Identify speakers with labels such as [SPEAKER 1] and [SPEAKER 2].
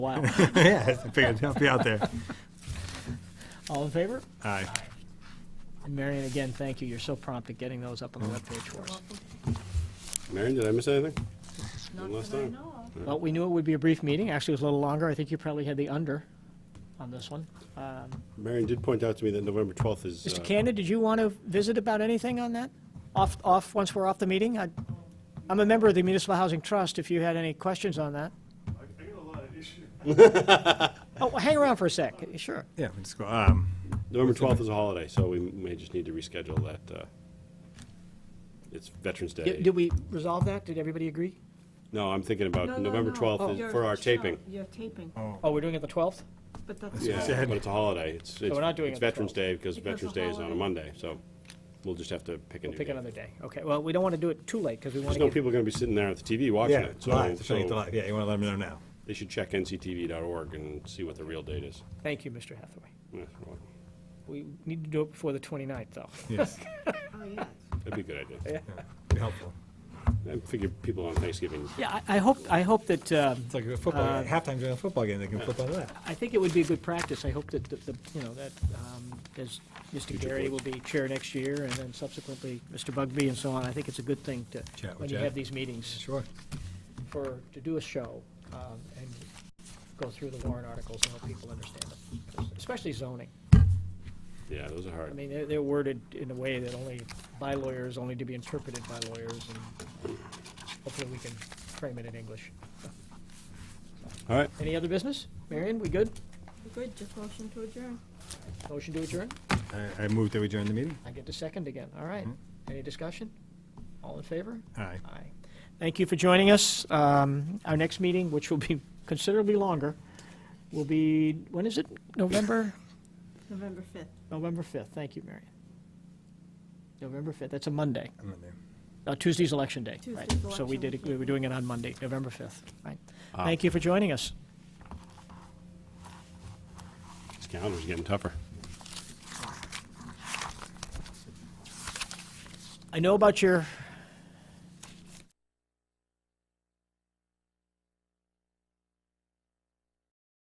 [SPEAKER 1] Wow.
[SPEAKER 2] yeah, I figured I'd help you out there.
[SPEAKER 1] All in favor?
[SPEAKER 2] Aye.
[SPEAKER 1] And Marion, again, thank you. You're so prompt at getting those up on the webpage for us.
[SPEAKER 3] Marion, did I miss anything?
[SPEAKER 4] Not
[SPEAKER 3] One last
[SPEAKER 4] that I
[SPEAKER 3] time.
[SPEAKER 4] know of.
[SPEAKER 1] Well, we knew it would be a brief meeting. Actually, it was a little longer. I think you probably had the under on this one. Um,
[SPEAKER 3] Marion did point out to me that November 12th is.
[SPEAKER 1] Mr.
[SPEAKER 3] uh,
[SPEAKER 1] Cannon, did you want to visit about anything on that? Off, off, once we're off the meeting? I- I'm a member of the Municipal Housing Trust, if you had any questions on that.
[SPEAKER 5] I got a lot of issues.
[SPEAKER 1] Oh, well, hang around for a sec, sure.
[SPEAKER 2] Yeah, we just go, um,
[SPEAKER 3] November 12th is a holiday, so we may just need to reschedule that. uh, It's Veterans Day.
[SPEAKER 1] Did did we resolve that? Did everybody agree?
[SPEAKER 3] No, I'm thinking
[SPEAKER 4] No,
[SPEAKER 3] about
[SPEAKER 4] no,
[SPEAKER 3] uh, November
[SPEAKER 4] no. Oh.
[SPEAKER 3] 12th
[SPEAKER 4] Your
[SPEAKER 3] is for our
[SPEAKER 4] show-
[SPEAKER 3] taping.
[SPEAKER 4] Your taping,
[SPEAKER 1] Oh, we're doing it the 12th?
[SPEAKER 4] but that's.
[SPEAKER 3] Yeah,
[SPEAKER 2] said.
[SPEAKER 3] but it's a holiday. It's, it's
[SPEAKER 1] we're not doing
[SPEAKER 3] it's
[SPEAKER 1] it the
[SPEAKER 3] Veterans
[SPEAKER 1] 12th.
[SPEAKER 3] Day because
[SPEAKER 4] Because
[SPEAKER 3] Veterans
[SPEAKER 4] the
[SPEAKER 3] Day is on a
[SPEAKER 4] holiday.
[SPEAKER 3] Monday, so we'll just have to pick a new
[SPEAKER 1] Pick
[SPEAKER 3] day.
[SPEAKER 1] another day. Okay, well, we don't want to do it too late, because we want
[SPEAKER 3] There's
[SPEAKER 1] to
[SPEAKER 3] no
[SPEAKER 1] get...
[SPEAKER 3] people going to be sitting there at the TV watching
[SPEAKER 2] yeah,
[SPEAKER 3] it, so
[SPEAKER 2] live, to bring it to
[SPEAKER 3] so
[SPEAKER 2] life. Yeah, you want to let them know now.
[SPEAKER 3] they should check nctv.org and see what the real date is.
[SPEAKER 1] Thank you, Mr. Hathaway.
[SPEAKER 3] Yeah, well,
[SPEAKER 1] We need to do it before the 29th, though.
[SPEAKER 2] Yes,
[SPEAKER 4] Oh, yeah.
[SPEAKER 3] That'd be a good idea.
[SPEAKER 2] be helpful.
[SPEAKER 3] I figure people on Thanksgiving,
[SPEAKER 1] Yeah, I, I hope, I hope that, um,
[SPEAKER 2] It's like a football, game. halftime during a football game, they can flip on that.
[SPEAKER 1] I think it would be good practice. I hope that, the the you know, that, um, as Mr. Gary will
[SPEAKER 3] boards.
[SPEAKER 1] be chair next year, and then subsequently Mr. Bugby and so on. I think it's a good thing to,
[SPEAKER 2] Chat with
[SPEAKER 1] when you
[SPEAKER 2] Jeff.
[SPEAKER 1] have these meetings,
[SPEAKER 2] Sure.
[SPEAKER 1] for, to do a show, um, and go through the warrant articles and help people understand them, especially zoning.
[SPEAKER 3] yeah, those are
[SPEAKER 1] I
[SPEAKER 3] hard.
[SPEAKER 1] mean, they're, they're worded in a way that only by lawyers, only to be interpreted by lawyers, and hopefully we can frame it in English.
[SPEAKER 3] All right,
[SPEAKER 1] Any other business? Marion, we good?
[SPEAKER 4] Good, just motion to adjourn.
[SPEAKER 1] Motion to adjourn?
[SPEAKER 2] I, I moved that we adjourn the meeting.
[SPEAKER 1] I get to second again. All right. Any discussion? All in favor?
[SPEAKER 2] Aye.
[SPEAKER 1] Aye. Thank you for joining us. Um, Our next meeting, which will be considerably longer, will be, when is it? November?
[SPEAKER 4] November 5th.
[SPEAKER 1] November 5th. Thank you, Marion. November 5th. That's a Monday.
[SPEAKER 2] I'm in there.
[SPEAKER 1] Uh, Tuesday's election day. right.
[SPEAKER 4] Tuesday's
[SPEAKER 1] So we
[SPEAKER 4] election
[SPEAKER 1] did,
[SPEAKER 4] day.
[SPEAKER 1] we were doing it on Monday, November 5th. Right. Thank you for joining us.
[SPEAKER 3] this calendar's getting tougher.
[SPEAKER 1] I know about your